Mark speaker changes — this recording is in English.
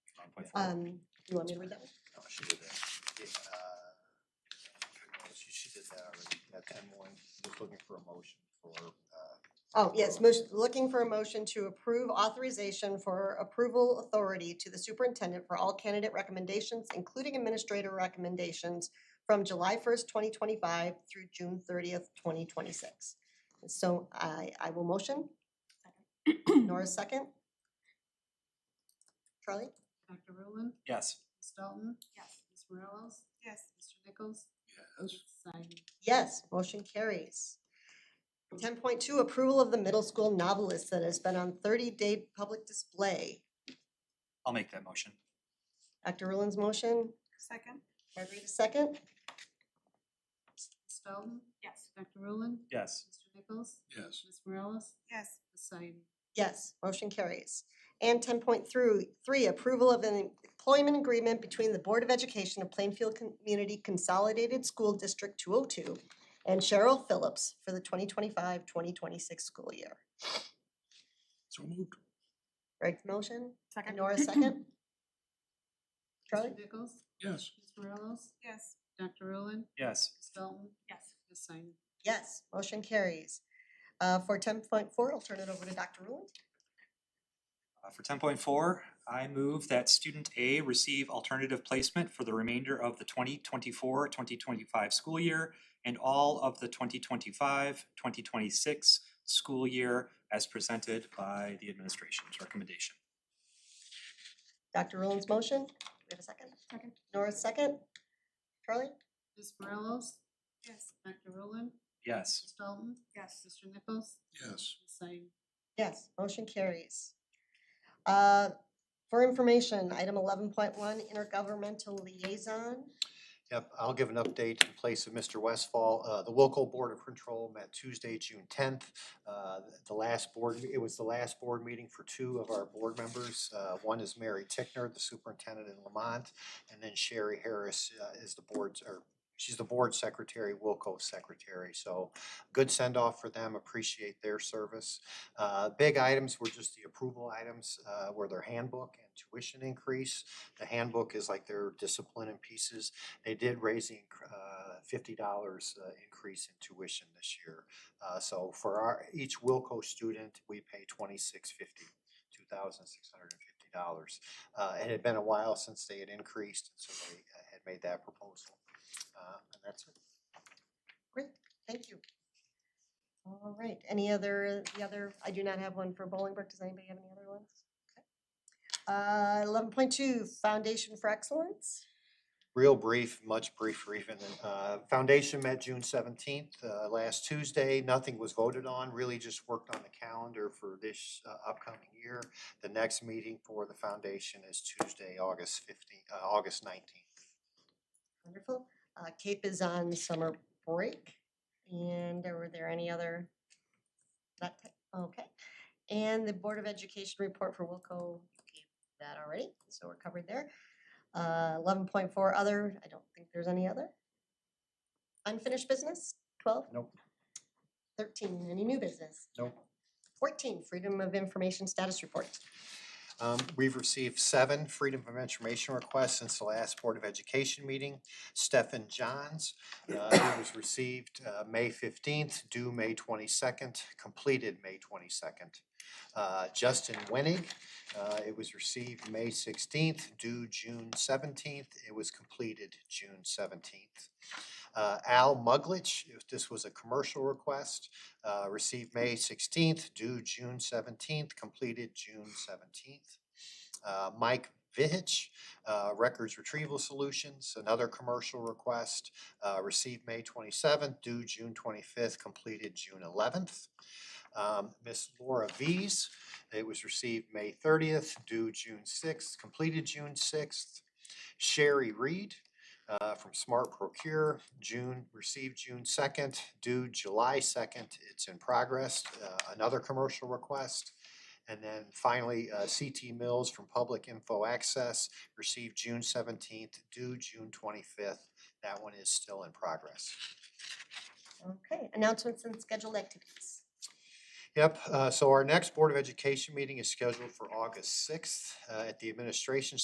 Speaker 1: one point four.
Speaker 2: Um, you want me to read that one?
Speaker 1: No, she did that. It, uh, She, she did that already, that ten one, just looking for a motion for, uh,
Speaker 2: Oh, yes, motion, looking for a motion to approve authorization for approval authority to the superintendent for all candidate recommendations, including administrator recommendations from July first, twenty twenty-five through June thirtieth, twenty twenty-six. So I, I will motion. Nora second. Charlie?
Speaker 3: Dr. Rowland,
Speaker 4: Yes.
Speaker 3: Ms. Dalton. Yes. Ms. Morelos. Yes. Mr. Nichols.
Speaker 4: Yes.
Speaker 3: Simon.
Speaker 2: Yes, motion carries. Ten point two, approval of the middle school novelist that has been on thirty-day public display.
Speaker 4: I'll make that motion.
Speaker 2: Dr. Rowland's motion,
Speaker 3: Second.
Speaker 2: Margarita second.
Speaker 3: Ms. Dalton. Yes. Dr. Rowland.
Speaker 4: Yes.
Speaker 3: Mr. Nichols.
Speaker 4: Yes.
Speaker 3: Ms. Morelos. Yes. Ms. Simon.
Speaker 2: Yes, motion carries. And ten point three, approval of an employment agreement between the Board of Education of Plainfield Community Consolidated School District two oh two and Cheryl Phillips for the 2025-2026 school year.
Speaker 4: So moved.
Speaker 2: Greg's motion? Second. Nora second? Charlie?
Speaker 3: Mr. Nichols.
Speaker 4: Yes.
Speaker 3: Ms. Morelos. Yes. Dr. Rowland.
Speaker 4: Yes.
Speaker 3: Ms. Dalton. Yes. Ms. Simon.
Speaker 2: Yes, motion carries. Uh, for ten point four, I'll turn it over to Dr. Ruland.
Speaker 4: Uh, for ten point four, I move that student A receive alternative placement for the remainder of the 2024-2025 school year and all of the 2025-2026 school year as presented by the administration's recommendation.
Speaker 2: Dr. Ruland's motion, do we have a second?
Speaker 3: Second.
Speaker 2: Nora's second? Charlie?
Speaker 3: Ms. Morelos. Yes. Dr. Rowland.
Speaker 4: Yes.
Speaker 3: Ms. Dalton. Yes. Mr. Nichols.
Speaker 4: Yes.
Speaker 3: Ms. Simon.
Speaker 2: Yes, motion carries. Uh, For information, item eleven point one, intergovernmental liaison.
Speaker 1: Yep, I'll give an update in place of Mr. Westfall. Uh, the local Board of Control met Tuesday, June tenth. Uh, the last board, it was the last board meeting for two of our board members. Uh, one is Mary Tickner, the superintendent in Lamont, and then Sherry Harris uh, is the board's, or she's the board secretary, Wilco secretary. So good send-off for them, appreciate their service. Uh, big items were just the approval items, uh, were their handbook and tuition increase. The handbook is like their discipline and pieces they did raise the inc- uh, fifty dollars uh, increase in tuition this year. Uh, So for our, each Wilco student, we pay twenty-six fifty, two thousand six hundred and fifty dollars. Uh, It had been a while since they had increased, so they uh, had made that proposal. Uh, And that's it.
Speaker 2: Thank you. All right, any other, the other, I do not have one for Bolingbrook. Does anybody have any other ones? Eleven point two, Foundation for Excellence.
Speaker 1: real brief, much briefer even. Uh, Foundation met June seventeenth, uh, last Tuesday. Nothing was voted on, really just worked on the calendar for this uh, upcoming year. The next meeting for the foundation is Tuesday, August fifteenth, uh, August nineteenth.
Speaker 2: Wonderful. Uh, CAPE is on summer break. And were there any other? That, okay. And the Board of Education report for Wilco, you gave that already, so we're covered there. Uh, Eleven point four, other, I don't think there's any other. Unfinished business, twelve?
Speaker 1: Nope.
Speaker 2: Thirteen, any new business?
Speaker 1: Nope.
Speaker 2: Fourteen, Freedom of Information Status Report.
Speaker 1: Um, we've received seven Freedom of Information requests since the last Board of Education meeting. Stephen Johns, uh, it was received, uh, May fifteenth, due May twenty-second, completed May twenty-second. Uh, Justin Wenig, uh, it was received May sixteenth, due June seventeenth, it was completed June seventeenth. Uh, Al Muglich, if this was a commercial request, uh, received May sixteenth, due June seventeenth, completed June seventeenth. Uh, Mike Vihich, uh, Records Retrieval Solutions, another commercial request, uh, received May twenty-seventh, due June twenty-fifth, completed June eleventh. Um, Miss Laura V's, it was received May thirtieth, due June sixth, completed June sixth. Sherry Reed, uh, from Smart Procure, June, received June second, due July second, it's in progress, uh, another commercial request. And then finally, uh, CT Mills from Public Info Access, received June seventeenth, due June twenty-fifth, that one is still in progress.
Speaker 2: Okay, announcements and scheduled activities.
Speaker 1: Yep, uh, so our next Board of Education meeting is scheduled for August sixth, uh, at the Administration